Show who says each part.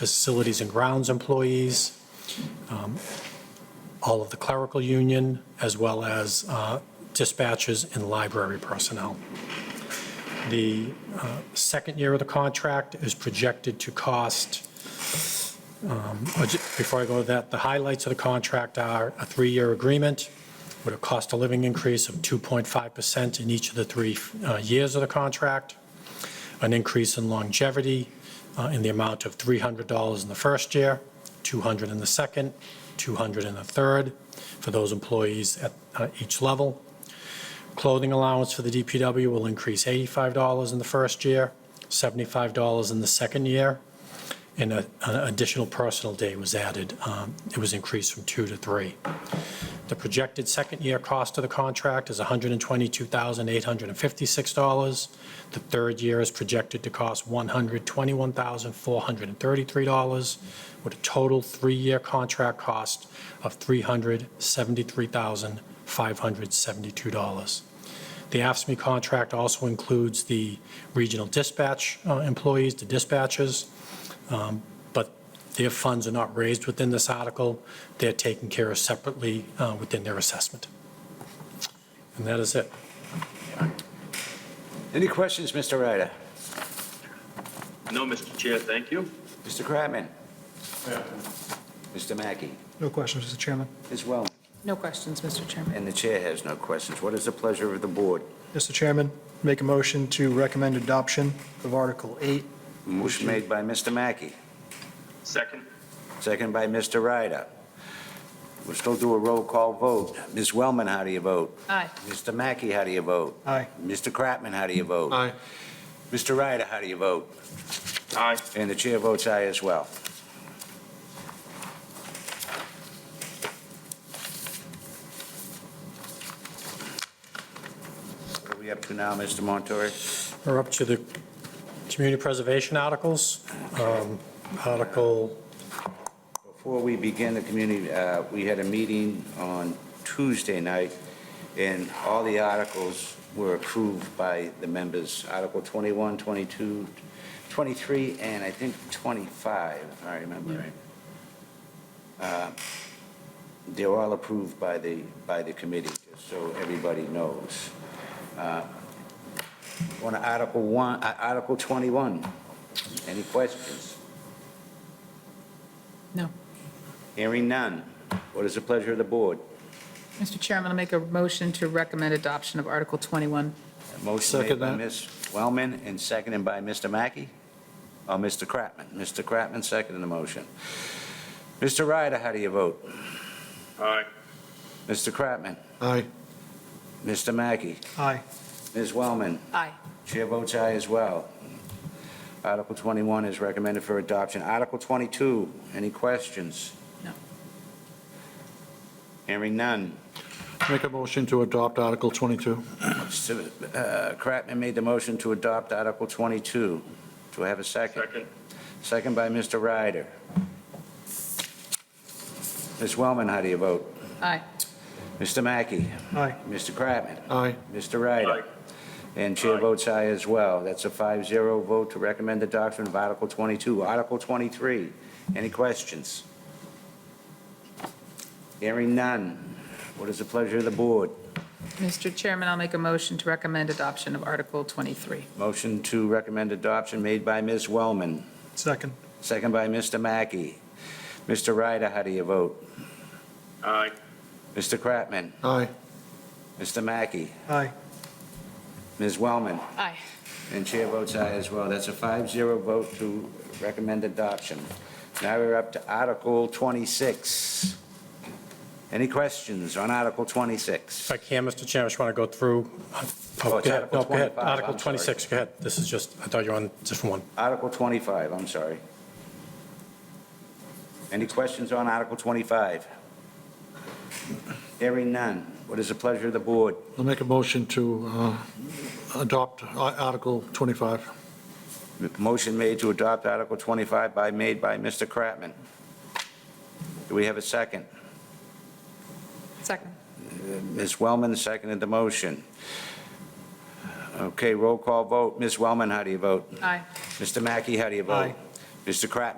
Speaker 1: facilities and grounds employees, um, all of the clerical union, as well as uh, dispatchers and library personnel. The uh, second year of the contract is projected to cost, um, but ju- before I go to that, the highlights of the contract are a three-year agreement with a cost of living increase of 2.5% in each of the three uh, years of the contract, an increase in longevity uh, in the amount of $300 in the first year, 200 in the second, 200 in the third, for those employees at uh, each level. Clothing allowance for the DPW will increase $85 in the first year, $75 in the second year, and a- an additional personal day was added. Um, It was increased from two to three. The projected second-year cost of the contract is $122,856. The third year is projected to cost $121,433, with a total three-year contract cost of $373,572. The AFSMI E contract also includes the regional dispatch uh, employees, the dispatchers, um, but their funds are not raised within this article. They're taken care of separately uh, within their assessment. And that is it.
Speaker 2: Any questions, Mr. Ryder?
Speaker 3: No, Mr. Chair, thank you.
Speaker 2: Mr. Kratman? Mr. Mackey?
Speaker 4: No questions, Mr. Chairman.
Speaker 2: Ms. Wellman?
Speaker 5: No questions, Mr. Chairman.
Speaker 2: And the chair has no questions. What is the pleasure of the board?
Speaker 4: Mr. Chairman, make a motion to recommend adoption of Article 8.
Speaker 2: Motion made by Mr. Mackey,
Speaker 3: Second?
Speaker 2: second by Mr. Ryder. We'll still do a roll call vote. Ms. Wellman, how do you vote?
Speaker 5: Aye.
Speaker 2: Mr. Mackey, how do you vote?
Speaker 4: Aye.
Speaker 2: Mr. Kratman, how do you vote? Aye. Mr. Ryder, how do you vote?
Speaker 3: Aye.
Speaker 2: And the chair votes aye as well. What are we up to now, Mr. Montori?
Speaker 1: We're up to the community preservation articles. Um, Article,
Speaker 2: Before we begin the community, uh, we had a meeting on Tuesday night, and all the articles were approved by the members, Article 21, 22, 23, and I think 25, if I remember right. Uh, They were all approved by the, by the committee, just so everybody knows. Uh, On Article 1, uh, Article 21, any questions?
Speaker 5: No.
Speaker 2: Hearing none. What is the pleasure of the board?
Speaker 5: Mr. Chairman, I'll make a motion to recommend adoption of Article 21.
Speaker 2: A Motion made
Speaker 1: Second
Speaker 2: by
Speaker 1: that.
Speaker 2: Ms. Wellman and seconded by Mr. Mackey, Uh, or Mr. Kratman. Mr. Kratman seconded the motion. Mr. Ryder, how do you vote?
Speaker 3: Aye.
Speaker 2: Mr. Kratman?
Speaker 4: Aye.
Speaker 2: Mr. Mackey?
Speaker 4: Aye.
Speaker 2: Ms. Wellman?
Speaker 5: Aye.
Speaker 2: Chair votes aye as well. Article 21 is recommended for adoption. Article 22, any questions?
Speaker 5: No.
Speaker 2: Hearing none.
Speaker 6: Make a motion to adopt Article 22.
Speaker 2: Mr. uh, Kratman made the motion to adopt Article 22. Do I have a second?
Speaker 3: Second?
Speaker 2: Second by Mr. Ryder. Ms. Wellman, how do you vote?
Speaker 5: Aye.
Speaker 2: Mr. Mackey?
Speaker 4: Aye.
Speaker 2: Mr. Kratman?
Speaker 6: Aye.
Speaker 2: Mr. Ryder? And chair
Speaker 3: Aye.
Speaker 2: votes aye as well. That's a 5-0 vote to recommend the doctrine of Article 22. Article 23, any questions? Hearing none. What is the pleasure of the board?
Speaker 5: Mr. Chairman, I'll make a motion to recommend adoption of Article 23.
Speaker 2: Motion to recommend adoption made by Ms. Wellman,
Speaker 4: Second.
Speaker 2: second by Mr. Mackey. Mr. Ryder, how do you vote?
Speaker 3: Aye.
Speaker 2: Mr. Kratman?
Speaker 6: Aye.
Speaker 2: Mr. Mackey,
Speaker 4: Aye.
Speaker 2: Ms. Wellman,
Speaker 5: Aye.
Speaker 2: and chair votes aye as well. That's a 5-0 vote to recommend adoption. Now we're up to Article 26. Any questions on Article 26?
Speaker 1: if I can, Mr. Chairman, I just want to go through.
Speaker 2: Oh,
Speaker 1: Oh,
Speaker 2: it's
Speaker 1: go ahead.
Speaker 2: Article
Speaker 1: No, go ahead.
Speaker 2: 25, I'm
Speaker 1: Article
Speaker 2: sorry.
Speaker 1: 26, go ahead. This is just, I thought you were on different one.
Speaker 2: Article 25, I'm sorry. Any questions on Article 25? Hearing none. What is the pleasure of the board?
Speaker 6: I'll make a motion to uh, adopt Ar- Article 25.
Speaker 2: Motion made to adopt Article 25 by, made by Mr. Kratman. Do we have a second?
Speaker 5: Second.
Speaker 2: Ms. Wellman seconded the motion. Okay, roll call vote. Ms. Wellman, how do you vote?
Speaker 5: Aye.
Speaker 2: Mr. Mackey, how do you vote?
Speaker 4: Aye.
Speaker 2: Mr. Kratman?